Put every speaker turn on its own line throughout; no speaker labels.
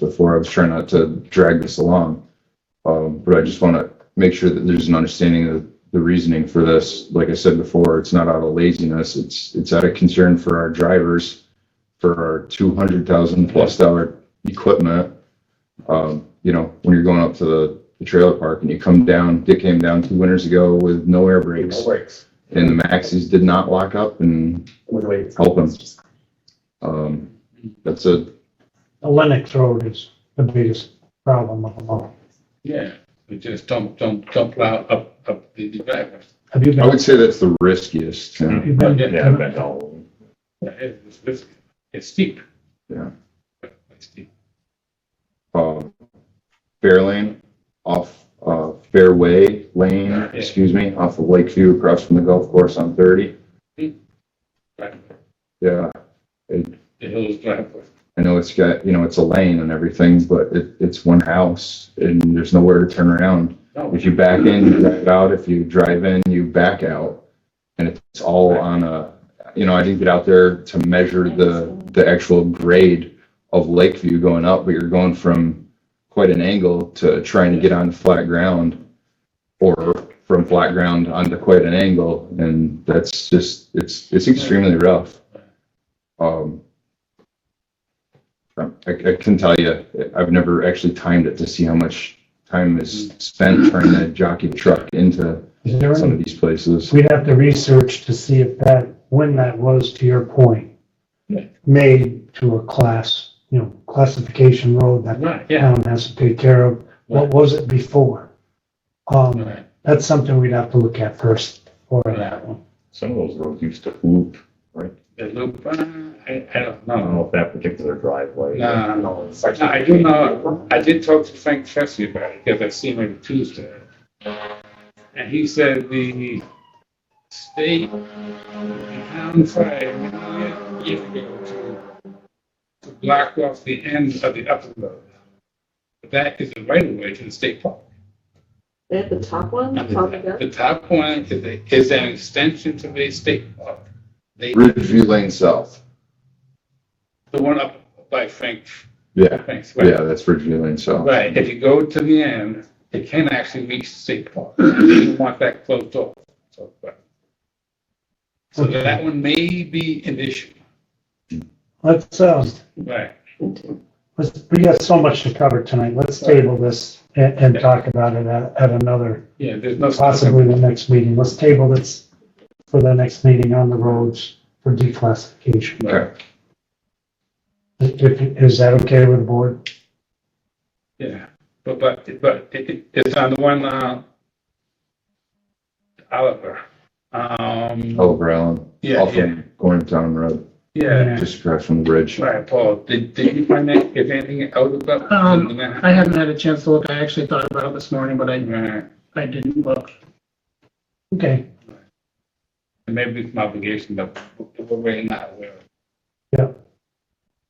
before. I was trying not to drag this along. Um, but I just want to make sure that there's an understanding of the reasoning for this. Like I said before, it's not out of laziness. It's, it's out of concern for our drivers, for our 200,000 plus dollar equipment. Um, you know, when you're going up to the, the trailer park and you come down, Dick came down two winters ago with no air brakes
No breaks.
and the maxis did not lock up and
With weights.
help them. Um, that's a,
The Lennox Road is the biggest problem of them all.
Yeah, we just don't, don't, don't plow up, up the the driveway.
Have you
I
been,
would say that's the riskiest. you know.
you've been,
Yeah,
Yeah, but no.
Yeah, It's, it's, it's steep.
Yeah.
It's steep.
Um, Fair lane off, uh, Fairway Lane, excuse me, off of Lakeview across from the golf course on thirty.
Driveway.
Yeah,
The hills driveway.
I know it's got, you know, it's a lane and everything, but it, it's one house and there's nowhere to turn around.
No,
If you back in, you drive out. If you drive in, you back out. And it's all on a, you know, I didn't get out there to measure the, the actual grade of Lakeview going up, but you're going from quite an angle to trying to get on flat ground or from flat ground onto quite an angle. And that's just, it's, it's extremely rough. Um, I, I can tell you, I've never actually timed it to see how much time is spent trying to jockey the truck into
is there
some
any,
of these places.
we'd have to research to see if that, when that was, to your point,
Yeah.
made to a class, you know, classification road that
Right,
the
yeah.
town has to take care of. What was it before? Um,
Right.
that's something we'd have to look at first for that one.
Some of those roads used to loop.
The loop, uh, I, I don't
I don't
Oh,
know.
know if that particular driveway.
No,
no.
No, I do know, I did talk to Frank Chesney about it, because I seen him Tuesday. And he said the state, the town tried many years ago to, to block off the end of the upper road. But that is the right of way to the state park.
They have the top one,
And
top of
The
that.
the top one is, a- is an extension to the state park. They,
Ridgeview Lane South.
the one up by Frank,
Yeah,
Frank's. right?
yeah, that's Ridgeview Lane South.
Right, if you go to the end, it can actually reach state park. You want that closed off. So but- so that one may be an issue.
Let's, um,
Right.
Let's, we got so much to cover tonight. Let's table this and, and talk about it at, at another,
Yeah, there's no.
possibly the next meeting. Let's table this for the next meeting on the roads for declassification.
Right,
If, is that okay with the board?
Yeah, but, but, but it, it- it's on the one, uh, Oliver. Um,
Oliver Allen.
Yeah,
Off
yeah.
of Gormantown Road,
yeah,
just across from the bridge.
right, Paul, did, did you find that, if anything out about?
Um, I haven't had a chance to look. I actually thought about it this morning, but I,
Right,
I didn't look.
Okay,
maybe it's an obligation, but we're really not aware. of.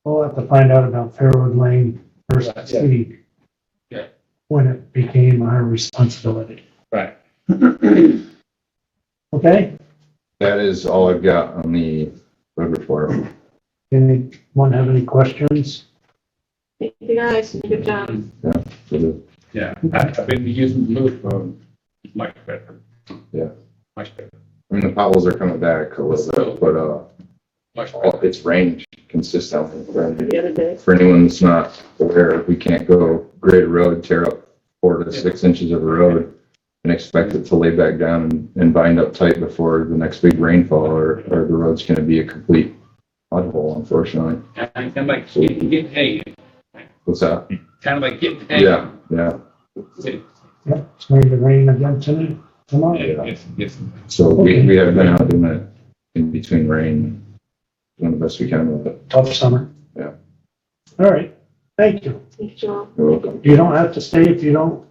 we'll have to find out about Fairwood Lane first
Yeah.
city.
Yeah.
When it became our responsibility.
Right.
Okay,
That is all I've got on the road report.
anyone have any questions?
Thank you guys, good job.
for the
Yeah, I- I've been using blue for much better.
Yeah.
Much better,
I mean, the potholes are coming back a little bit, but, uh,
much better.
all- it's rained consistently.
The other day,
For anyone that's not aware, we can't go grade a road, tear up four to six inches of a road and expect it to lay back down and- and bind up tight before the next big rainfall or, or the road's gonna be a complete mudhole, unfortunately.
And and like, you you get hay,
What's that?
kind of like getting hay.
Yeah, yeah.
It-
Yep, it's going to rain again tonight, tomorrow.
It's, it's,
So we, we have been out doing it in between rain, doing the best we can with it.
Tough summer.
Yeah.
All right, thank you.
thank you all.
You're welcome.
You don't have to stay if you don't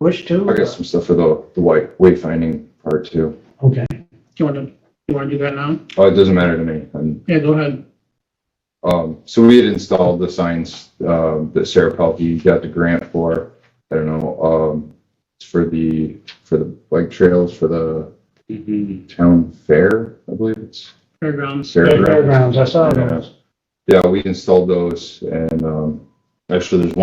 wish to.
I got some stuff for the, the white wayfinding part too.
Okay,
Do you want to, you want to do that now?
Oh, it doesn't matter to me. And,
Yeah, go ahead.
um, so we had installed the signs, um, that Sarah Pelkey got the grant for. I don't know, um, it's for the, for the bike trails, for the
mhm.
town fair, I believe it's.
Fairgrounds.
Fairgrounds.
fairgrounds, I saw
Yeah.
those.
Yeah, we installed those and, um, actually there's one.